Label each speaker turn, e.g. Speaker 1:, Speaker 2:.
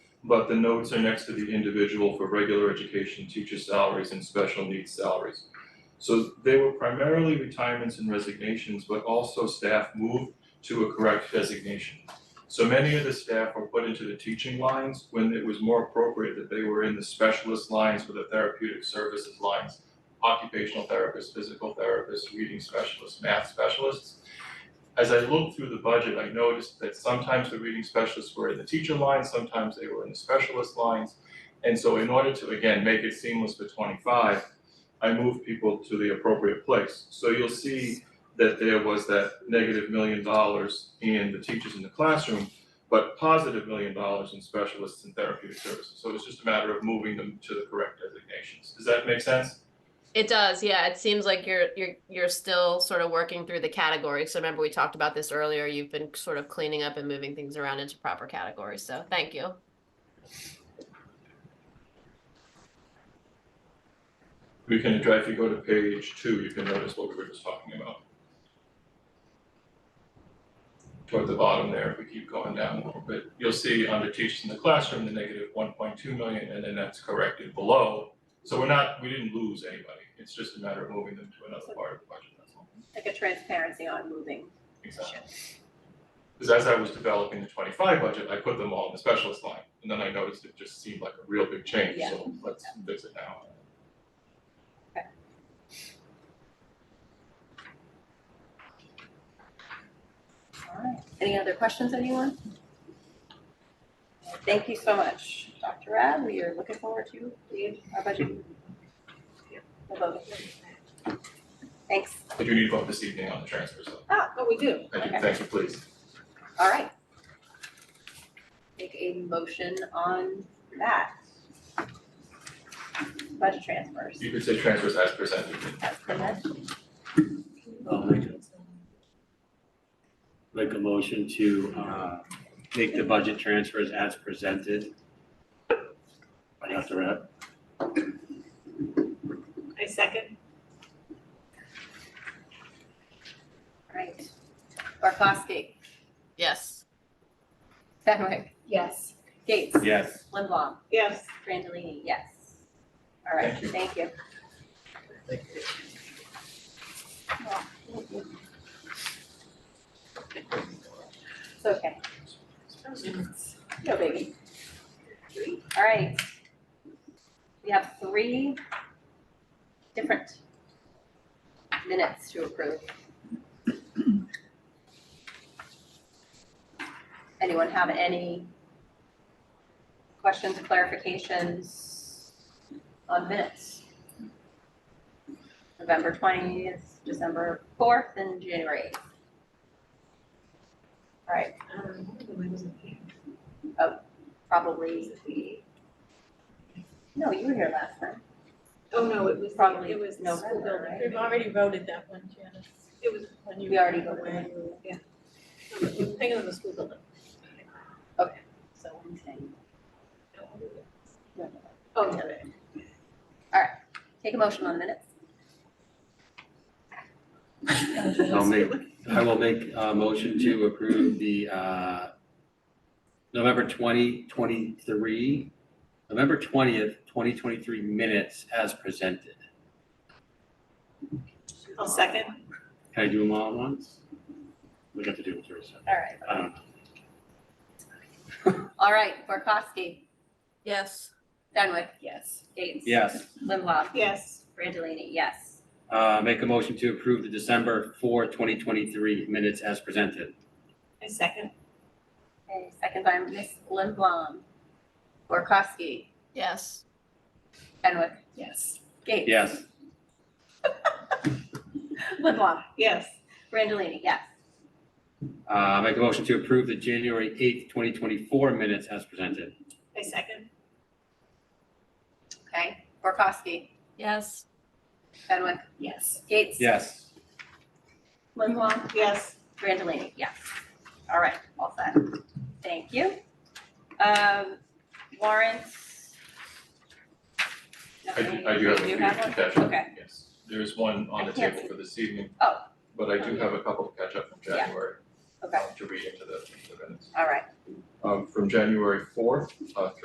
Speaker 1: but the notes are next to the individual for regular education, teacher salaries and special needs salaries. So they were primarily retirements and resignations, but also staff moved to a correct designation. So many of the staff were put into the teaching lines when it was more appropriate that they were in the specialist lines for the therapeutic services lines. Occupational therapists, physical therapists, reading specialists, math specialists. As I looked through the budget, I noticed that sometimes the reading specialists were in the teacher line, sometimes they were in the specialist lines. And so in order to, again, make it seamless for twenty-five, I moved people to the appropriate place. So you'll see that there was that negative million dollars in the teachers in the classroom, but positive million dollars in specialists and therapeutic services. So it's just a matter of moving them to the correct designations. Does that make sense?
Speaker 2: It does, yeah. It seems like you're you're you're still sort of working through the categories. So remember we talked about this earlier. You've been sort of cleaning up and moving things around into proper categories. So thank you.
Speaker 1: We can, if you go to page two, you can notice what we were just talking about. Toward the bottom there, if we keep going down a little bit, you'll see under teachers in the classroom, the negative one point two million, and then that's corrected below. So we're not, we didn't lose anybody, it's just a matter of moving them to another part of the budget, that's all.
Speaker 3: like a transparency on moving.
Speaker 1: Exactly. Because as I was developing the twenty-five budget, I put them all in the specialist line, and then I noticed it just seemed like a real big change,
Speaker 3: Yeah.
Speaker 1: so let's fix it now.
Speaker 3: Alright, any other questions, anyone? Thank you so much, Dr. Rad, we are looking forward to the, our budget. The vote. Thanks,
Speaker 1: I do need to vote this evening on the transfer, so,
Speaker 3: ah, oh, we do,
Speaker 1: I do,
Speaker 3: okay,
Speaker 1: thank you, please.
Speaker 3: alright. Make a motion on that. Budget transfers.
Speaker 1: You could say transfers as presented.
Speaker 3: That's the next.
Speaker 4: I'll make a, make a motion to, uh, make the budget transfers as presented. By Dr. Rapp.
Speaker 5: I second.
Speaker 3: Alright, Barkowski,
Speaker 2: Yes.
Speaker 3: Fenwick,
Speaker 5: Yes.
Speaker 3: Gates,
Speaker 4: Yes.
Speaker 3: Limbaugh.
Speaker 5: Yes.
Speaker 3: Brandolini, yes. All right,
Speaker 1: Thank you.
Speaker 3: thank you. It's okay. No biggie. All right. We have three different minutes to approve. Anyone have any questions, clarifications on minutes? November twentieth, December fourth, and January eighth. All right,
Speaker 5: Oh,
Speaker 3: probably, no, you were here last time.
Speaker 5: Oh, no, it was,
Speaker 3: Probably
Speaker 5: it was the
Speaker 3: November,
Speaker 5: school building.
Speaker 3: right?
Speaker 6: We've already voted that one, Janice.
Speaker 5: It was when you.
Speaker 3: We already
Speaker 5: were
Speaker 3: voted on
Speaker 5: away. Yeah. Hang on, the school building.
Speaker 3: So Wednesday.
Speaker 5: Oh, okay.
Speaker 3: Take a motion on the minutes.
Speaker 4: I'll make, I will make a motion to approve the, uh, November twenty, twenty-three, November twentieth, twenty twenty-three minutes as presented.
Speaker 5: I'll second.
Speaker 4: Can I do them all at once? Um, We got to do it first.
Speaker 3: All right.
Speaker 4: I don't know.
Speaker 3: All right, Borkowski,
Speaker 2: Yes.
Speaker 3: Dunwick. Yes. Gates.
Speaker 4: Yes.
Speaker 3: Limbaugh,
Speaker 5: Yes.
Speaker 3: Brandolini, yes.
Speaker 4: Uh, make a motion to approve the December 4, 2023 minutes as presented.
Speaker 5: I second.
Speaker 3: Okay, second by Ms. Limbaugh. Borkowski,
Speaker 2: Yes.
Speaker 3: Dunwick,
Speaker 5: Yes.
Speaker 3: Gates.
Speaker 4: Yes.
Speaker 3: Limbaugh,
Speaker 5: Yes.
Speaker 3: Brandolini, yes.
Speaker 4: Uh, make a motion to approve the January 8, 2024 minutes as presented.
Speaker 5: I second.
Speaker 3: Okay, Borkowski,
Speaker 2: Yes.
Speaker 3: Dunwick,
Speaker 5: Yes.
Speaker 3: Gates.
Speaker 4: Yes.
Speaker 3: Limbaugh,
Speaker 5: Yes.
Speaker 3: Brandolini, yes. All right, all set. Thank you. Um, warrants.
Speaker 1: I
Speaker 3: Nothing.
Speaker 1: do, I do have a
Speaker 3: You
Speaker 1: few
Speaker 3: have one?
Speaker 1: to catch up,
Speaker 3: Okay.
Speaker 1: yes. There is one on
Speaker 3: I
Speaker 1: the
Speaker 3: can't
Speaker 1: table
Speaker 3: see.
Speaker 1: for this evening.
Speaker 3: Oh.
Speaker 1: But I do
Speaker 3: Okay.
Speaker 1: have a couple to catch up from
Speaker 3: Yeah.
Speaker 1: January.
Speaker 3: Okay.
Speaker 1: um, To read into the the minutes.
Speaker 3: All right.
Speaker 1: Um, from January fourth, uh,